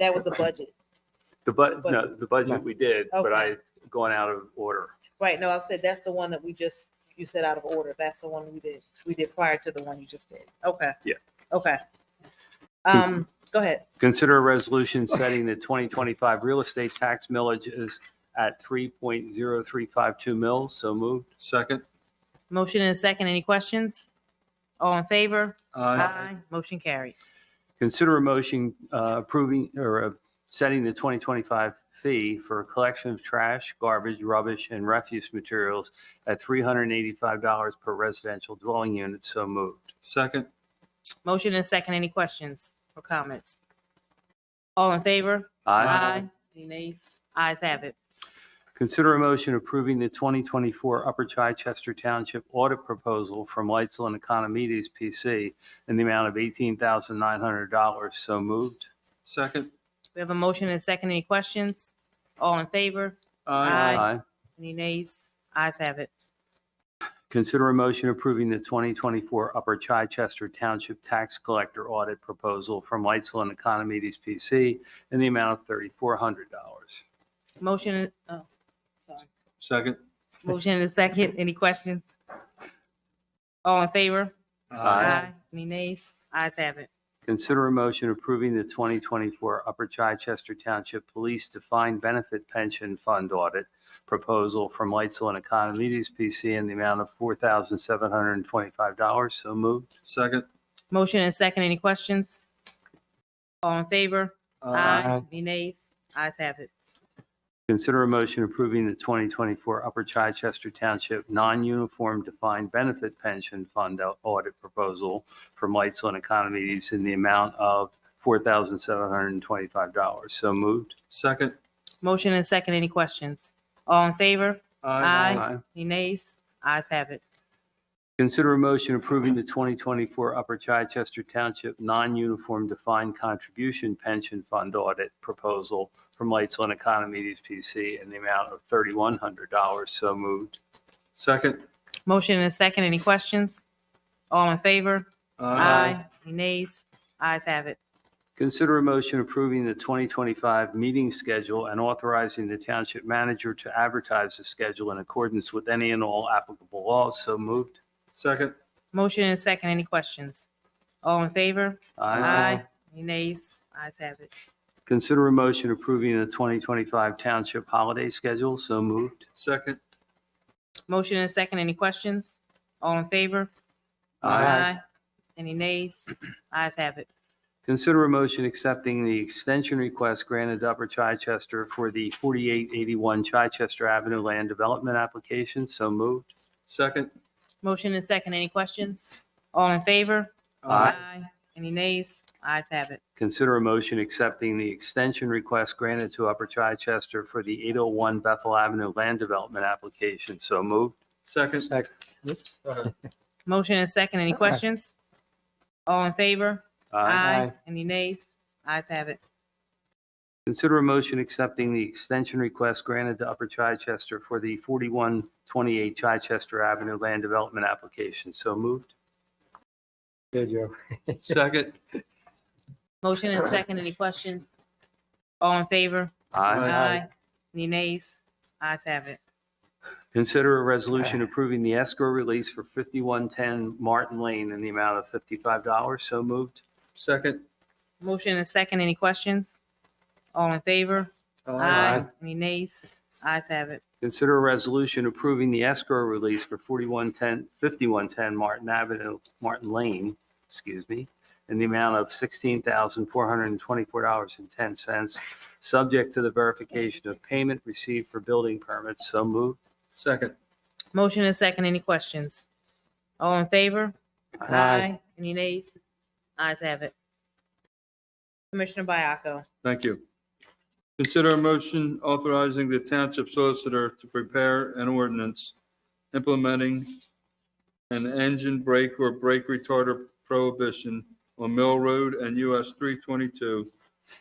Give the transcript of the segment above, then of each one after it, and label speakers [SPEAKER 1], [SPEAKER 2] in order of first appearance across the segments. [SPEAKER 1] That was the budget.
[SPEAKER 2] The bu,
[SPEAKER 1] But-
[SPEAKER 2] no, the budget we did, but
[SPEAKER 1] Okay.
[SPEAKER 2] I've gone out of order.
[SPEAKER 1] Right, no, I've said that's the one that we just, you said out of order. That's the one we did, we did prior to the one you just did. Okay.
[SPEAKER 2] Yeah.
[SPEAKER 1] Okay.
[SPEAKER 2] Cons-
[SPEAKER 1] Um, go ahead.
[SPEAKER 2] Consider a resolution setting the 2025 real estate tax millage is at 3.0352 mils. So moved.
[SPEAKER 3] Second.
[SPEAKER 1] Motion and a second. Any questions? All in favor? Motion carried.
[SPEAKER 2] Consider a motion uh, approving or uh, setting the 2025 fee for collection of trash, garbage, rubbish, and refuse materials at $385 per residential dwelling unit. So moved.
[SPEAKER 3] Second.
[SPEAKER 1] Motion and a second. Any questions or comments? All in favor? Any nays? Ayes have it.
[SPEAKER 2] Consider a motion approving the 2024 Upper Chichester Township audit proposal from Lightsville and Economides PC in the amount of $18,900. So moved.
[SPEAKER 3] Second.
[SPEAKER 1] We have a motion and a second. Any questions? All in favor? Aye. Any nays? Ayes have it.
[SPEAKER 2] Consider a motion approving the 2024 Upper Chichester Township Tax Collector audit proposal from Lightsville and Economides PC in the amount of $3,400.
[SPEAKER 1] Motion, oh, sorry.
[SPEAKER 3] Second.
[SPEAKER 1] Motion and a second. Any questions? All in favor?
[SPEAKER 2] Aye.
[SPEAKER 1] Any nays? Ayes have it.
[SPEAKER 2] Consider a motion approving the 2024 Upper Chichester Township Police Defined Benefit Pension Fund Audit Proposal from Lightsville and Economides PC in the amount of $4,725. So moved.
[SPEAKER 3] Second.
[SPEAKER 1] Motion and second. Any questions? All in favor? Any nays? Ayes have it.
[SPEAKER 2] Consider a motion approving the 2024 Upper Chichester Township Non-Uniform Defined Benefit Pension Fund Au- Audit Proposal from Lightsville and Economides in the amount of $4,725. So moved.
[SPEAKER 3] Second.
[SPEAKER 1] Motion and second. Any questions? All in favor? Aye.
[SPEAKER 2] Aye.
[SPEAKER 1] Any nays? Ayes have it.
[SPEAKER 2] Consider a motion approving the 2024 Upper Chichester Township Non-Uniform Defined Contribution Pension Fund Audit Proposal from Lightsville and Economides PC in the amount of $3,100. So moved.
[SPEAKER 3] Second.
[SPEAKER 1] Motion and second. Any questions? All in favor? Any nays? Ayes have it.
[SPEAKER 2] Consider a motion approving the 2025 meeting schedule and authorizing the township manager to advertise the schedule in accordance with any and all applicable laws. So moved.
[SPEAKER 3] Second.
[SPEAKER 1] Motion and second. Any questions? All in favor? Any nays? Ayes have it.
[SPEAKER 2] Consider a motion approving the 2025 township holiday schedule. So moved.
[SPEAKER 3] Second.
[SPEAKER 1] Motion and second. Any questions? All in favor? Any nays? Ayes have it.
[SPEAKER 2] Consider a motion accepting the extension request granted to Upper Chichester for the 4881 Chichester Avenue Land Development Application. So moved.
[SPEAKER 3] Second.
[SPEAKER 1] Motion and second. Any questions? All in favor?
[SPEAKER 2] Aye.
[SPEAKER 1] Any nays? Ayes have it.
[SPEAKER 2] Consider a motion accepting the extension request granted to Upper Chichester for the 801 Bethel Avenue Land Development Application. So moved.
[SPEAKER 3] Second.
[SPEAKER 1] Motion and second. Any questions? All in favor? Any nays? Ayes have it.
[SPEAKER 2] Consider a motion accepting the extension request granted to Upper Chichester for the 4128 Chichester Avenue Land Development Application. So moved.
[SPEAKER 4] Good, Joe.
[SPEAKER 3] Second.
[SPEAKER 1] Motion and second. Any questions? All in favor?
[SPEAKER 3] Aye.
[SPEAKER 1] Any nays? Ayes have it.
[SPEAKER 2] Consider a resolution approving the escrow release for 5110 Martin Lane in the amount of $55. So moved.
[SPEAKER 3] Second.
[SPEAKER 1] Motion and second. Any questions? All in favor? Any nays? Ayes have it.
[SPEAKER 2] Consider a resolution approving the escrow release for 4110, 5110 Martin Avenue, Martin Lane, excuse me, in the amount of $16,424.10, subject to the verification of payment received for building permits. So moved.
[SPEAKER 3] Second.
[SPEAKER 1] Motion and second. Any questions? All in favor? Any nays? Ayes have it. Commissioner Biaco,
[SPEAKER 3] Thank you. Consider a motion authorizing the township solicitor to prepare an ordinance implementing an engine brake or brake retarder prohibition on Mill Road and US 322,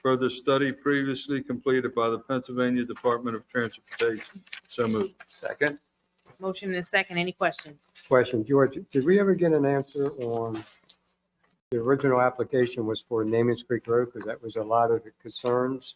[SPEAKER 3] per the study previously completed by the Pennsylvania Department of Transportation. So moved.
[SPEAKER 2] Second.
[SPEAKER 1] motion and second. Any questions?
[SPEAKER 4] Question, George, did we ever get an answer on
[SPEAKER 2] the original application was for Namens Creek Road because that was a lot of the concerns